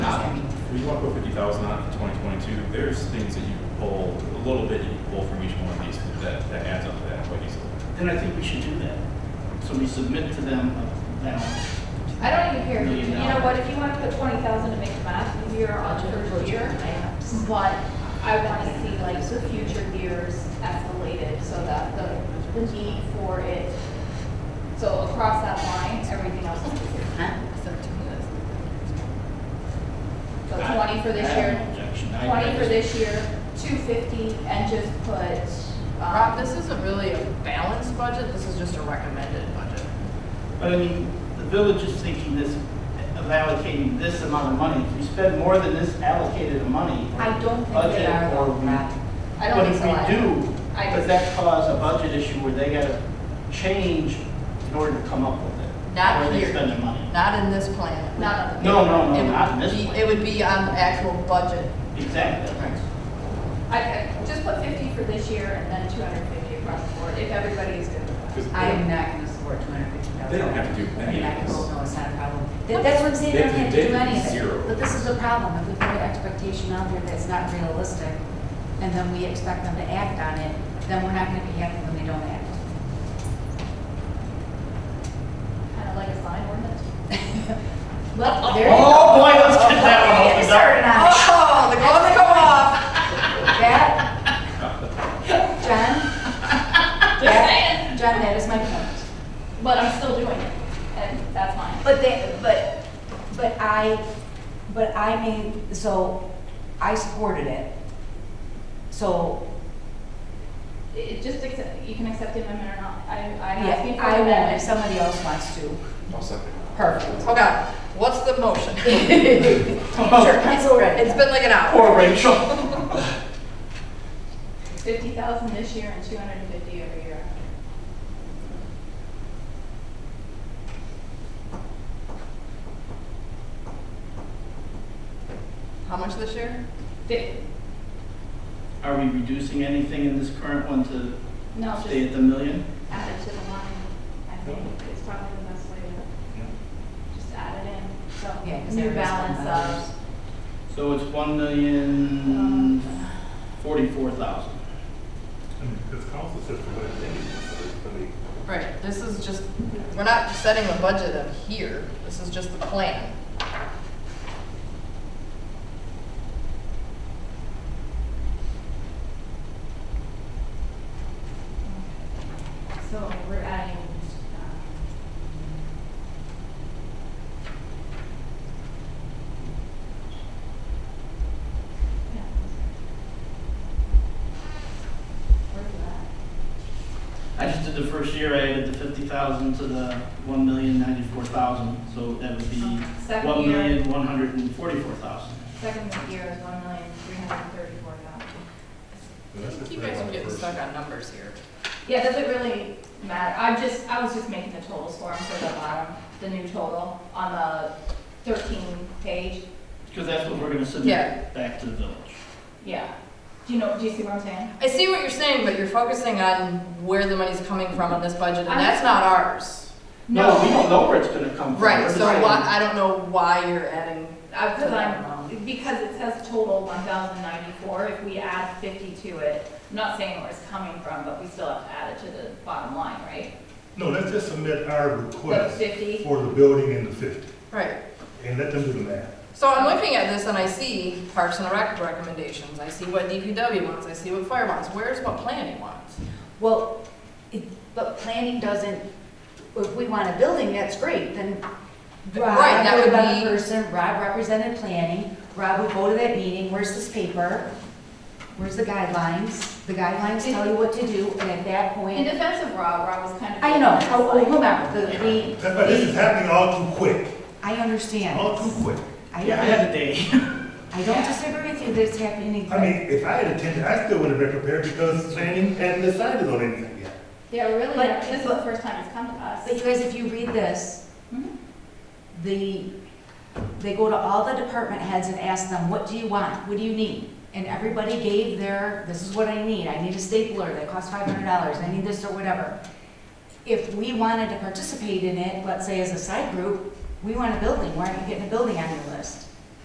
you want to put fifty thousand on it for twenty twenty-two, there's things that you can pull, a little bit you can pull from each one of these that, that adds up to that quite easily. Then I think we should do that. So we submit to them a balance. I don't even care, if you Million you know dollars. what, if you wanna put twenty thousand to make the math year on the first year, but I wanna see like the future years escalated so that the, the need for it, so across that line, everything else is the same. So I- twenty for I this have year, no objection. I- I twenty for just- this year, two fifty, and just put, Rob, um, this isn't really a balanced budget, this is just a recommended budget. But I mean, the village is thinking this, of allocating this amount of money. If we spend more than this allocated money. or I don't think they budget, are, or we- I don't think so But either. if we do, I does just- that cause a budget issue where they gotta change in order to come up with it? Not Where they here. spend the money? Not in this plan. not on the. No, no, It no, would not in this be- It one. would be on the actual budget. Exactly. I, I just put fifty for this year and then two hundred fifty across the board, if everybody is good with that. 'Cause I am they- not gonna support two hundred fifty thousand. They don't have to do any of this. No, it's not a problem. That- That's what I'm saying, They they have don't to do- have to they have do to any do of zero. it. But this is the problem, if we put an expectation out there that's not realistic, and then we expect them to act on it, then we're not gonna be happy when they don't act. Kind of like a sign ordinance. Well, there you go. Oh, boy, let's get that one Get opened started up. on it. Oh, the gloves go off. That, John, that, John, that is my point. But I'm still doing it, and that's fine. But they, but, but I, but I made, so I supported it. So It it just accept, you can accept the amendment or not, I, I'm asking Yeah, for I an will, if amendment. somebody else wants to. I'll second. Perfect. Oh, God, what's the motion? Sure, it's all right. It's been like an hour. Poor Rachel. Fifty thousand this year and two hundred and fifty every year. How much this year? Fif- Are we reducing anything in this current one to No, stay at just the million? add it to the line, I think, is probably the best way to, just add it in, Yeah, so. 'cause New everybody's balance got of, um, So it's one million forty-four thousand. Hmm. And it's council said for what it needs, so it's gonna be- Right, this is just, we're not setting a budget up here, this is just the plan. so we're adding, uh, um. yeah. Where's that? I just did the first year, I added the fifty thousand to the one million ninety-four thousand, so that would be Second one million one hundred and forty-four thousand. Second year is one million, three hundred and thirty-four thousand. and that's just You for guys are the getting first- stuck on numbers here. Yeah, does it really matter? I'm just, I was just making the totals for 'em for the bottom, the new total on the thirteen page. Because that's what we're gonna Yeah. submit back to the village. Yeah. Do you know, do you see what I'm saying? I see what you're saying, but you're focusing on where the money's coming from on this budget, I'm- and that's not ours. No, we don't know where it's gonna come from. Right, We're so deciding. why, I don't know why you're adding, Because I'm, because it says total one thousand ninety-four, if we add fifty to it, I'm not saying where it's coming from, but we still have to add it to the bottom line, right? No, let's just submit our That's request fifty. for the building and the fifty, right. and let them do the math. So I'm looking at this and I see Parks and Rec recommendations, I see what DPW wants, I see what fire wants, where's what planning wants? Well, it, but planning doesn't, if we want a building, that's great, then Rob Right, that would would have been the be- person, Rob represented planning, Rob would go to that meeting, where's this paper? Where's the guidelines? The guidelines tell you what to do, and at that In point, defense of Rob, Rob was kind of. I know, how, oh, whomever, the, the- That's why this is Oh, happening all too quick, I understand. all too quick. I, Yeah, I had a day. I don't disagree with you that it's happening. I mean, if I had attended, I still wouldn't have been prepared because planning hadn't decided on anything yet. Yeah, really, But- this is the first time it's come to us. But you guys, if you read this, Mhm. the, they go to all the department heads and ask them, what do you want? What do you need? And everybody gave their, this is what I need. I need a stapler that costs five hundred dollars. I need this or whatever. If we wanted to participate in it, let's say as a side group, we want a building. Why aren't you getting a building on your list?